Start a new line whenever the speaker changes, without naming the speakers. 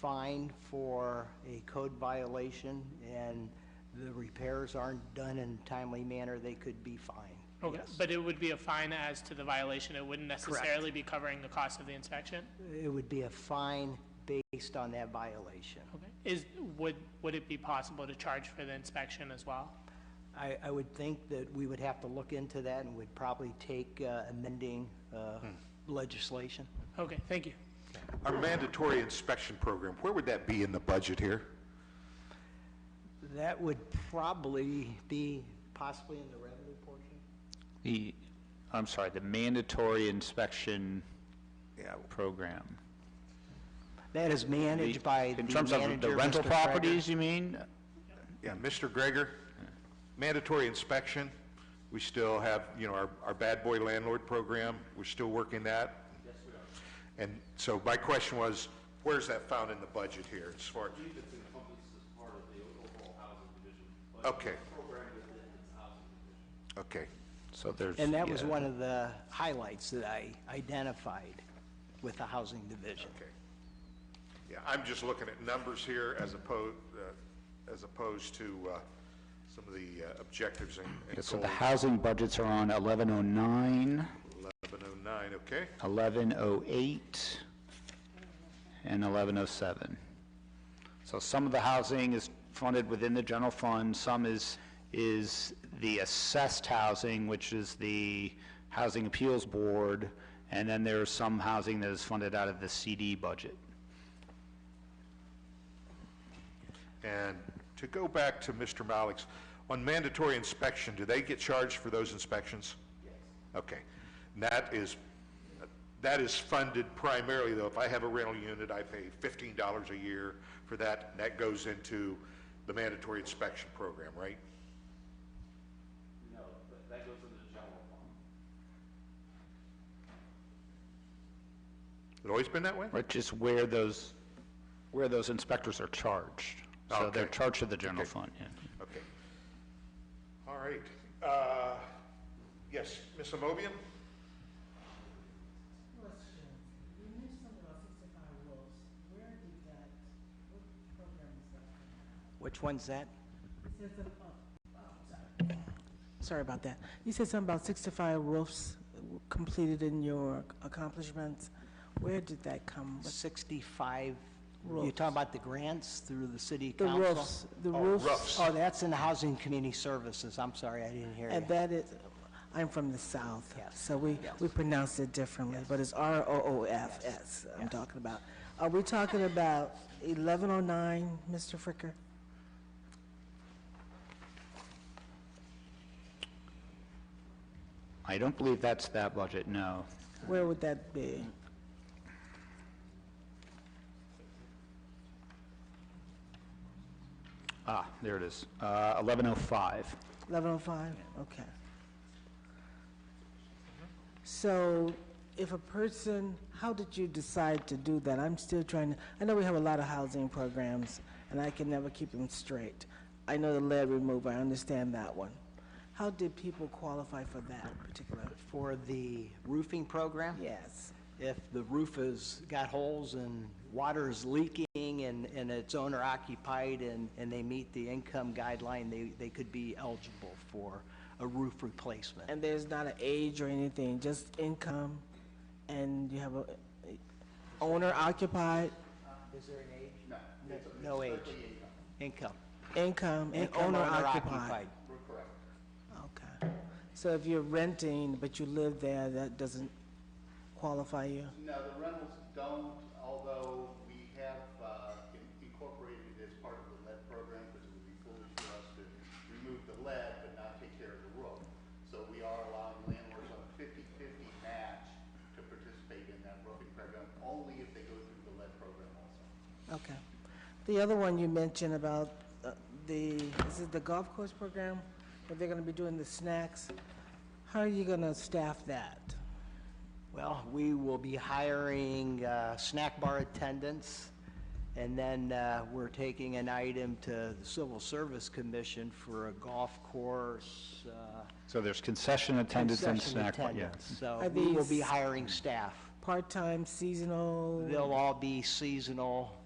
fined for a code violation and the repairs aren't done in a timely manner, they could be fined.
Okay,
Yes.
Oh, but it would be a fine as to the violation, it wouldn't necessarily be covering the cost of the inspection?
It would be a fine based on that violation.
Okay, is, would, would it be possible to charge for the inspection as well?
I, I would think that we would have to look into that and would probably take uh, amending uh,
Hmm.
legislation.
Okay, thank you.
Our mandatory inspection program, where would that be in the budget here?
That would probably be possibly in the revenue portion.
The, I'm sorry, the mandatory inspection
Yeah.
program.
That is managed by the
In terms of
manager,
the rental
Mr. Kreger.
properties, you mean?
Yeah, Mr. Greger, mandatory inspection, we still have, you know, our, our bad boy landlord program, we're still working that. Yes, we are. And so my question was, where's that found in the budget here, as far?
It's encompassed as part of the overall housing division. budget.
Okay,
Program within its housing division.
okay.
So there's.
And that was
yeah.
one of the highlights that I identified with the housing division.
Okay. Yeah, I'm just looking at numbers here as opposed, as opposed to uh, some of the uh, objectives and and
Yeah,
goals.
So the housing budgets are on 1109,
1109, okay?
1108, and 1107. So some of the housing is funded within the general fund, some is, is the assessed housing, which is the Housing Appeals Board, and then there's some housing that is funded out of the CD budget.
And to go back to Mr. Malik's, on mandatory inspection, do they get charged for those inspections? Yes. Okay. And that is, that is funded primarily, though, if I have a rental unit, I pay fifteen dollars a year for that, and that goes into the mandatory inspection program, right?
No, but that goes into the general fund.
It always been that way?
Which is where those, where those inspectors are charged. So they're
Okay.
charged to the general
Okay.
fund, yeah.
Okay. All right. Uh, Yes, Ms. Amobian?
Question, you mentioned something about sixty-five wolves, where did that, what program is that?
Which one's that?
It says, some- oh, oh, sorry. Sorry about that. You said something about sixty-five roofs completed in your accomplishments. Where did that come? with-
65, you're
Roofs.
talking about the grants through the city
The
council?
roofs, the
Oh,
roofs,
roofs.
Oh, that's in the Housing Community Services. I'm sorry, I didn't hear
and
you.
that is, I'm from the south.
Yes.
So we,
Yes.
we pronounce it differently, but it's R-O-O-F-S I'm talking about. Are we talking about eleven oh nine, Mr. Fricker?
I don't believe that's that budget, no.
Where would that be?
Ah, there it is, Uh, 1105.
Eleven oh five, okay. So if a person, how did you decide to do that? I'm still trying to, I know we have a lot of housing programs, and I can never keep them straight. I know the lead removal, I understand that one. How did people qualify for that particular?
For the roofing program?
Yes,
If the roof has got holes and water is leaking and, and it's owner occupied and, and they meet the income guideline, they, they could be eligible for a roof replacement.
and there's not an age or anything, just income, and you have a a owner occupied,
Is there an age? No. No age. Income.
income, and
Income
owner occupied. Okay. So if you're renting, but you live there, that doesn't qualify you?
No, the rentals don't, although we have uh, in- incorporated it as part of the lead program, because it would be foolish for us to remove the lead but not take care of the roof. So we are allowing landlords on a 50/50 match to participate in that roofing program, only if they go through the lead program also.
Okay. The other one you mentioned about uh, the, is it the golf course program, where they're gonna be doing the snacks? How are you gonna staff that?
Well, we will be hiring uh, snack bar attendants, and then uh, we're taking an item to the Civil Service Commission for a golf course. uh,
So there's concession attendants and
concession
snack, bar- yeah.
attendants. So
Are
we will be
these-
hiring staff.
Part-time, seasonal?
They'll all be seasonal,